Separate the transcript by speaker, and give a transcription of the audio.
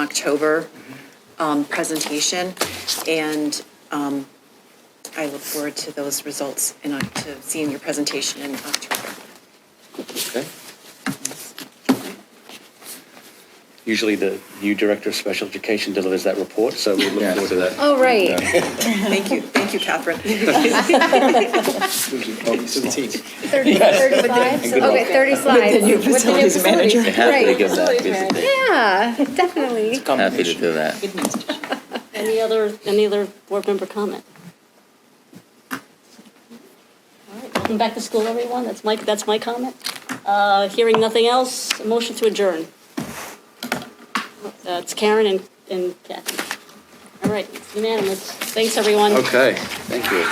Speaker 1: October um, presentation, and um, I look forward to those results and uh, to seeing your presentation in October.
Speaker 2: Okay. Usually the new director of special education delivers that report, so we look forward to that.
Speaker 3: Oh, right.
Speaker 1: Thank you, thank you, Catherine.
Speaker 3: Thirty- 35?
Speaker 2: Good luck.
Speaker 3: Okay, 30 slides. With the new facilities manager.
Speaker 2: Happy to
Speaker 3: Right.
Speaker 2: give that, visit.
Speaker 3: Yeah, definitely.
Speaker 2: happy to do that.
Speaker 4: Any other, any other board member comment? All right, Welcome back to school, everyone. That's my, that's my comment. Uh, Hearing nothing else, a motion to adjourn. Uh, It's Karen and and Kathy. All right, it's unanimous. Thanks, everyone.
Speaker 2: Okay, thank you.